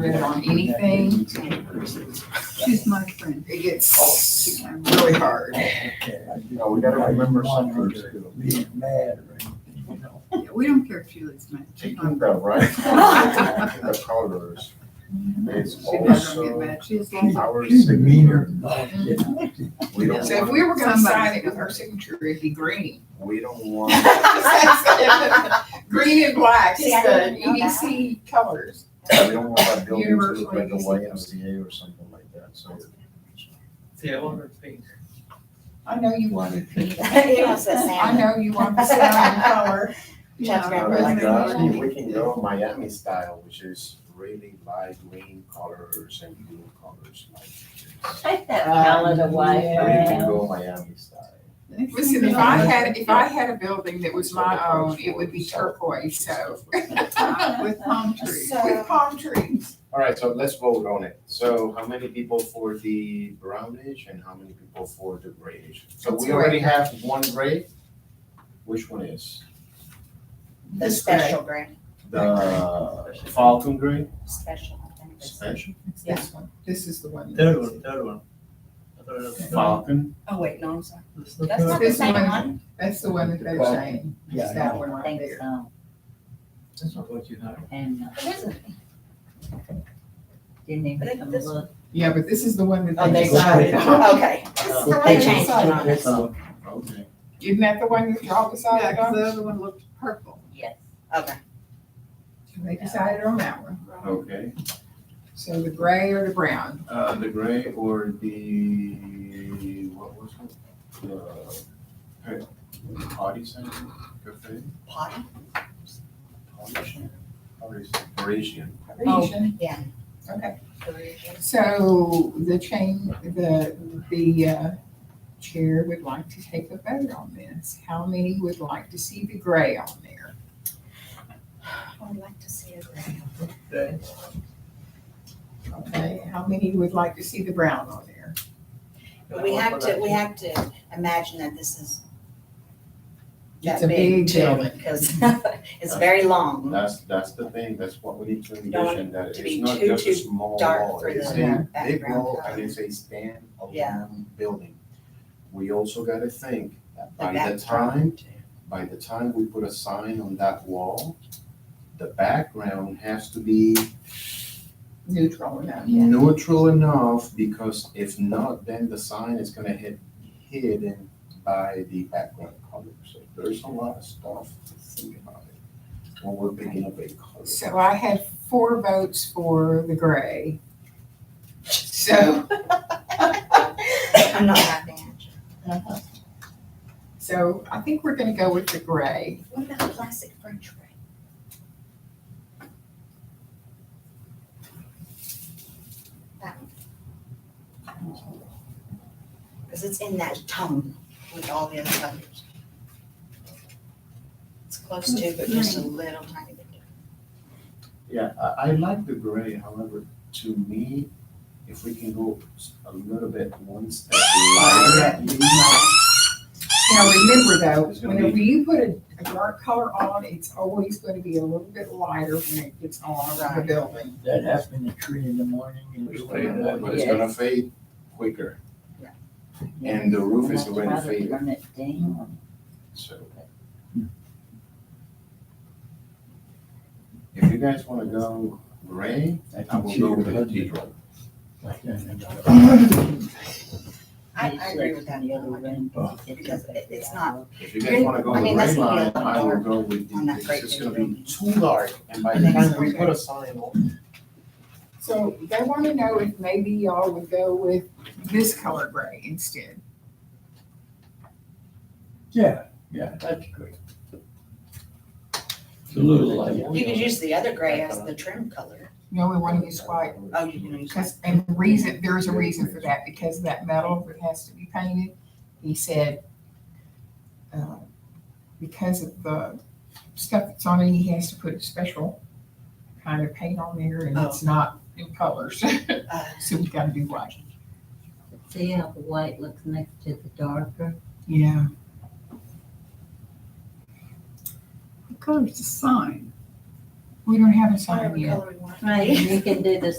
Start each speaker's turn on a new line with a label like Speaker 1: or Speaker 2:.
Speaker 1: read it on anything. She's my friend. It gets really hard.
Speaker 2: No, we gotta remember something.
Speaker 3: Being mad or anything, you know.
Speaker 1: Yeah, We don't care if she leaves my.
Speaker 2: She can go, right? The colors. It's
Speaker 1: She doesn't get
Speaker 2: also
Speaker 1: mad. She's like.
Speaker 2: our
Speaker 3: She's meaner
Speaker 2: signature.
Speaker 3: than I am.
Speaker 2: We don't
Speaker 4: So if
Speaker 2: want,
Speaker 4: we were gonna sign
Speaker 1: Somebody-
Speaker 4: it with her signature, it'd be green.
Speaker 2: we don't want,
Speaker 4: Green and black,
Speaker 5: See, I
Speaker 4: it's
Speaker 5: didn't
Speaker 4: the
Speaker 5: know that.
Speaker 4: EDC colors.
Speaker 2: we don't want our buildings to
Speaker 4: Universal
Speaker 2: look like a
Speaker 4: ABC.
Speaker 2: YMCA or something like that, so.
Speaker 6: Yeah, I wonder if they-
Speaker 4: I know you wanted pink.
Speaker 5: He wants the
Speaker 4: I
Speaker 5: salmon.
Speaker 4: know you want the salmon color.
Speaker 5: Chad's
Speaker 1: Yeah.
Speaker 2: Uh,
Speaker 5: grandpa liked
Speaker 2: we
Speaker 5: the
Speaker 2: got-
Speaker 5: salmon.
Speaker 2: We can go Miami style, which is really light green colors and blue colors like. this.
Speaker 5: Take that
Speaker 4: Uh,
Speaker 5: palette away
Speaker 2: Or
Speaker 5: from
Speaker 2: you can
Speaker 5: him.
Speaker 2: go Miami style.
Speaker 4: Listen, if I had, if I had a building that was my own, it would be turquoise, so.
Speaker 1: With palm trees.
Speaker 4: With palm trees.
Speaker 2: All right, so let's vote on it. So how many people for the brownish and how many people for the grayish? So
Speaker 4: Let's
Speaker 2: we
Speaker 4: do it.
Speaker 2: already have one gray. Which one is?
Speaker 5: The special grant,
Speaker 2: The Falcon gray?
Speaker 5: special. I think it's-
Speaker 2: Special?
Speaker 4: Yes. This is the one.
Speaker 6: Third one, third one. I thought it was the third one.
Speaker 2: Falcon?
Speaker 5: Oh, wait, no, I'm sorry.
Speaker 6: It's the
Speaker 5: That's
Speaker 6: third
Speaker 5: not
Speaker 6: one.
Speaker 5: the same one.
Speaker 4: That's the one that they're saying.
Speaker 3: Yeah,
Speaker 4: It's
Speaker 3: I
Speaker 4: that
Speaker 3: know.
Speaker 4: one
Speaker 5: I
Speaker 4: right
Speaker 5: think
Speaker 4: there.
Speaker 5: so.
Speaker 6: That's not what you have.
Speaker 5: And uh,
Speaker 7: It isn't.
Speaker 5: didn't
Speaker 7: I
Speaker 5: even
Speaker 7: think
Speaker 5: come
Speaker 7: this-
Speaker 5: look.
Speaker 4: Yeah, but this is the one
Speaker 5: Oh,
Speaker 4: that they
Speaker 5: they Oh.
Speaker 4: decided on.
Speaker 5: Okay. They changed it on us.
Speaker 3: So,
Speaker 2: Okay.
Speaker 4: Isn't that the one that y'all
Speaker 1: Yeah,
Speaker 4: decided
Speaker 1: 'cause the
Speaker 4: on?
Speaker 1: other one looked purple.
Speaker 5: Yes, okay.
Speaker 4: They decided on that one.
Speaker 2: Okay,
Speaker 4: So the gray or the brown?
Speaker 2: uh, the gray or the, what was it? The, hey, party center, cafe?
Speaker 5: Potty?
Speaker 2: Parisian? Parisian.
Speaker 4: Parisian.
Speaker 5: yeah.
Speaker 4: Okay. So the chain, the, the uh, chair would like to take a vote on this. How many would like to see the gray on there?
Speaker 5: I'd like to see a grant.
Speaker 6: Okay.
Speaker 4: Okay, how many would like to see the brown on there?
Speaker 5: We have to, we have to imagine that this is
Speaker 4: It's
Speaker 5: that
Speaker 4: a
Speaker 5: big
Speaker 4: big
Speaker 5: too,
Speaker 4: building.
Speaker 5: because it's very long.
Speaker 2: That's, that's the thing, that's what we need to
Speaker 5: Don't want
Speaker 2: envision, that
Speaker 5: to be
Speaker 2: it's not
Speaker 5: too,
Speaker 2: just a
Speaker 5: too
Speaker 2: small
Speaker 5: dark
Speaker 2: wall,
Speaker 5: for
Speaker 2: it's
Speaker 4: the
Speaker 2: a big
Speaker 5: background
Speaker 2: wall
Speaker 5: color.
Speaker 2: and it's a standalone
Speaker 5: Yeah.
Speaker 2: building. We also gotta think, that
Speaker 5: The
Speaker 2: by the
Speaker 5: background,
Speaker 2: time,
Speaker 5: too.
Speaker 2: by the time we put a sign on that wall, the background has to be
Speaker 4: Neutral enough.
Speaker 2: neutral enough, because if not, then the sign is gonna hit hidden by the background color. So there's a lot of stuff to think about it, when we're picking up a color.
Speaker 4: So I had four votes for the gray. So,
Speaker 5: I'm not happy. actually.
Speaker 4: so I think we're gonna go with the gray.
Speaker 5: What about plastic French fry? That one. Because it's in that tone with all the other colors. It's close to, but just a little tiny bit. different.
Speaker 2: Yeah, I, I like the gray, however, to me, if we can go s- a little bit one step lighter.
Speaker 4: Now, remember
Speaker 2: It's
Speaker 4: though,
Speaker 2: gonna
Speaker 4: whenever you put a, a dark color on, it's always gonna be a little bit lighter when it gets on around the building.
Speaker 3: That happened at three in the morning. and
Speaker 2: But
Speaker 3: it was
Speaker 2: it's gonna fade quicker, and the roof is already
Speaker 5: I'd rather
Speaker 2: faded.
Speaker 5: burn it down.
Speaker 2: so. If you guys wanna go gray, I will go with the cathedral.
Speaker 5: Mm-hmm. I, I agree with that.
Speaker 7: The other one.
Speaker 5: Because it- it's not,
Speaker 2: If you guys wanna go
Speaker 5: I
Speaker 2: with
Speaker 5: mean, that's
Speaker 2: gray
Speaker 5: gonna be a
Speaker 2: line,
Speaker 5: lot
Speaker 2: I will
Speaker 5: dark
Speaker 2: go with
Speaker 5: on
Speaker 2: the,
Speaker 5: that
Speaker 2: because
Speaker 5: great
Speaker 2: it's gonna
Speaker 5: big
Speaker 2: be too dark, and by
Speaker 5: I
Speaker 2: the
Speaker 5: think
Speaker 2: time
Speaker 5: so,
Speaker 2: we
Speaker 5: too.
Speaker 2: put a sign on,
Speaker 4: So they wanna know if maybe y'all would go with this color gray instead.
Speaker 3: Yeah, yeah, that's great. It's a little light.
Speaker 5: you could use the other gray as the trim color.
Speaker 4: No, we wanna use white.
Speaker 5: Oh, you can use
Speaker 4: Because, and the reason, there's a reason for that, because that metal that has to be painted, he said, uh, because of the stuff that's on it, he has to put a special kind of paint on there, and it's not in colors,
Speaker 5: uh,
Speaker 4: so we gotta do white.
Speaker 7: See how the white looks next to the darker?
Speaker 4: Yeah.
Speaker 1: What color's the sign?
Speaker 8: We don't have a sign
Speaker 4: whatever
Speaker 8: yet.
Speaker 4: color we want.
Speaker 5: Right, you can do the